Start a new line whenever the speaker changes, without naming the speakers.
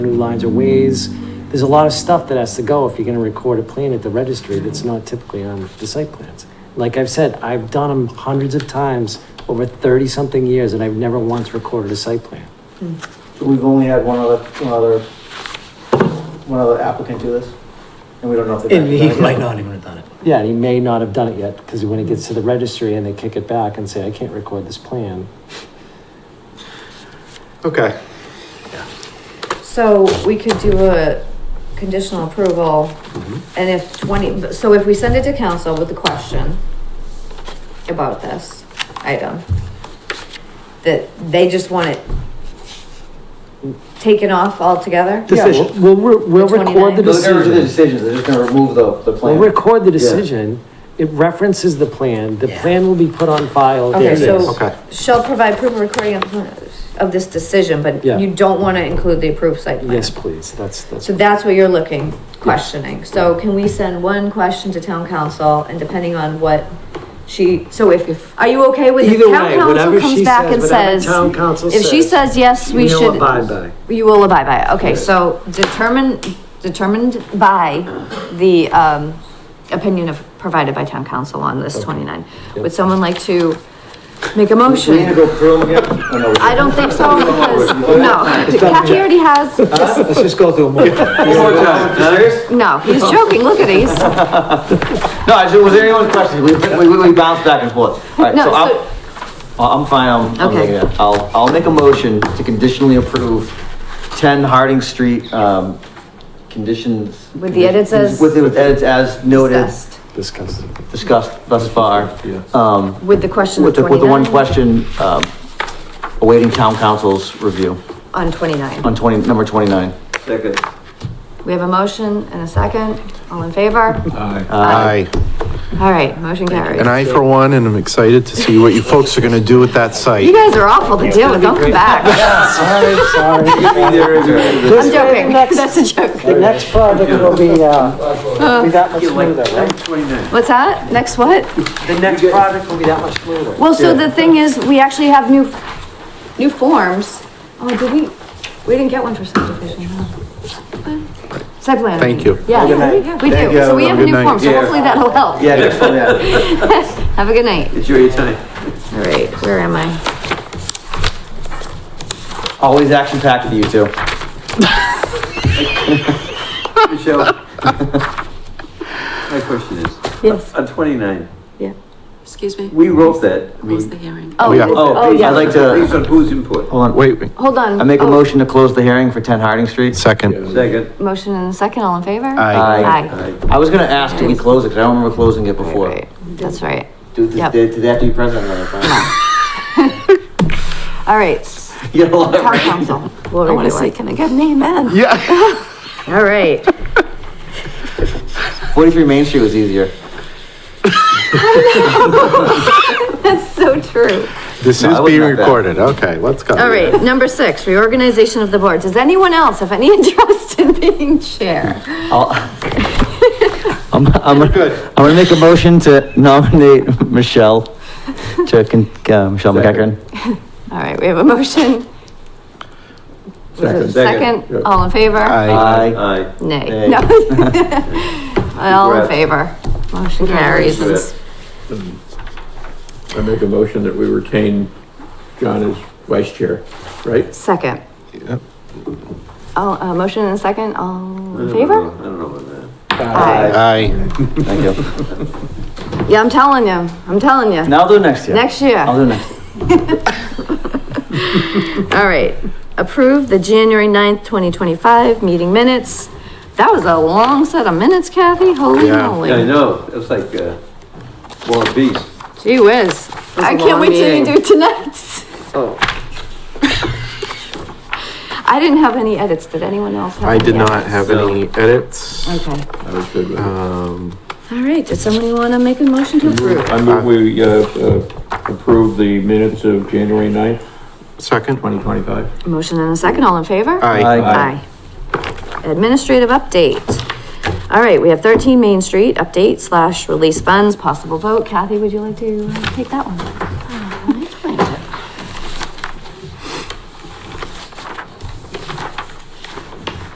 new lines or ways. There's a lot of stuff that has to go if you're gonna record a plan at the registry that's not typically on the site plans. Like I've said, I've done them hundreds of times over thirty-something years and I've never once recorded a site plan.
We've only had one other, one other, one other applicant do this, and we don't know if they're.
And he might not even have done it.
Yeah, and he may not have done it yet, because when it gets to the registry and they kick it back and say, I can't record this plan.
Okay.
So we could do a conditional approval,
Mm-hmm.
and if twenty, so if we send it to council with a question about this item, that they just want it taken off altogether?
Yeah, we'll-
Decision.
We'll, re- we'll
The
record the
29.
They're gonna do the
decision.
decisions, they're just gonna remove the, the
We'll
plan.
record the
Yeah.
decision. It references the plan. The
Yeah.
plan will be put on file.
Okay,
There it is.
so-
Okay.
Shall provide proof of recording of- of this decision, but
Yeah.
you don't wanna include the approved site plan?
Yes, please, that's, that's,
So that's what you're looking, questioning. So can we send one question to town council and depending on what she, so if- if, are you okay with if
Either
town
way,
council
whatever
comes
she
back
says,
and
whatever
says?
town council
If she
says,
says, yes, we
we'll
should.
abide by.
You will abide by it. Okay, so determined, determined by the, um, opinion of, provided by town council on this twenty-nine. Would someone like to make a
Do we need to
motion?
go through them again? or no?
I don't think so because, no, Kathy already has
Let's just go through them.
One more time. You serious?
No, he's joking. Look at it. He's,
No, I just, was there anyone's question? We, we, we- we bounced back and forth. Alright,
No,
so
so-
I'll, I'm fine, I'm, I'm
Okay.
taking it. I'll, I'll make a motion to conditionally approve ten Harding Street, um, conditions.
With the edits as-
With, with edits as noted,
discussed
discussed.
discussed thus far. Um,
with the question
With
of
the, with the one
29
question, um, awaiting town council's review
on 29.
on twenty, number twenty-nine.
Second.
We have a motion and a second. All in favor?
Aye.
All right, motion carries.
And I, for one, am excited to see what you folks are gonna do with that
You
site.
guys are awful to deal with. Don't come back.
Sorry, sorry.
I'm joking. That's a joke.
The next project will be, uh, be that much smoother, right?
What's that? Next what?
The next project will be that much smoother.
Well, so the thing is, we actually have new, new forms. Oh, did we, we didn't get one for subdivision. huh? Site plan. I
Thank
mean.
you.
Yeah, we do. So we have a new
Good night.
form, so
Yeah.
hopefully that'll help.
Yeah, next one, yeah.
Have a good night.
Enjoy your time.
All right, where am I?
Always action packed for you two.
Michelle. My question is,
Yes.
on twenty-nine,
Yeah.
Excuse me,
we wrote that. I
close the
mean,
hearing.
Oh,
yeah.
oh,
I'd
yeah.
like to,
Based on whose input?
hold on, wait,
Wait, wait,
Hold on.
I make a
Oh,
motion to close the hearing for ten Harding Street.
second.
Second.
Motion and a second, all in favor?
Aye.
Aye.
Aye.
I was gonna ask, did we close it? 'Cause I don't remember closing it before.
Right, That's right.
Do, did,
Yep.
did they have to be present or not?
All right, s-
You got a lot of
town council. We'll
I want to
review
say,
it.
can I get an amen?
Yeah.
All right.
Forty-three Main Street was easier.
That's so true.
This
No, I
is
wasn't
being
like that.
recorded. Okay, let's go.
All right, number six, reorganization of the board. Does anyone else have any interest in being chair?
I'll- I'm, I'm, I'm gonna make a motion to nominate Michelle to, con- uh, Michelle McEachran.
All right, we have a motion. Was it a
Second.
Second, all in favor?
Aye.
Aye.
Nay.
Nay.
No. All in
Congrats.
favor? Motion carries.
Congrats.
I make a motion that we retain John as vice chair, right?
Second.
Yep.
All, uh, motion and a second, all
I
in
don't
favor?
know. I don't know about
Aye.
Aye.
Thank you.
Yeah, I'm telling you, I'm telling you.
Now I'll do it next year.
Next year.
I'll do it next year.
All right, approve the January 9th, twenty twenty-five meeting minutes. That was a long set of minutes, Kathy, holy
Yeah.
that. I
moly.
know, it's like, uh, War of Beast.
Gee whiz. I can't wait till you do tonight's.
Oh.
I didn't have any edits, did anyone else have?
I did
any
not
edits?
have any edits.
Okay,
I was good with it.
Um,
all right, did somebody wanna make a motion to approve?
I move we, uh, uh, approve the minutes of January ninth,
second.
twenty twenty-five.
Motion and a second, all in favor?
Aye.
Aye. Administrative update. All right, we have thirteen Main Street, update slash release funds, possible vote. Kathy, would you like to uh, take that one?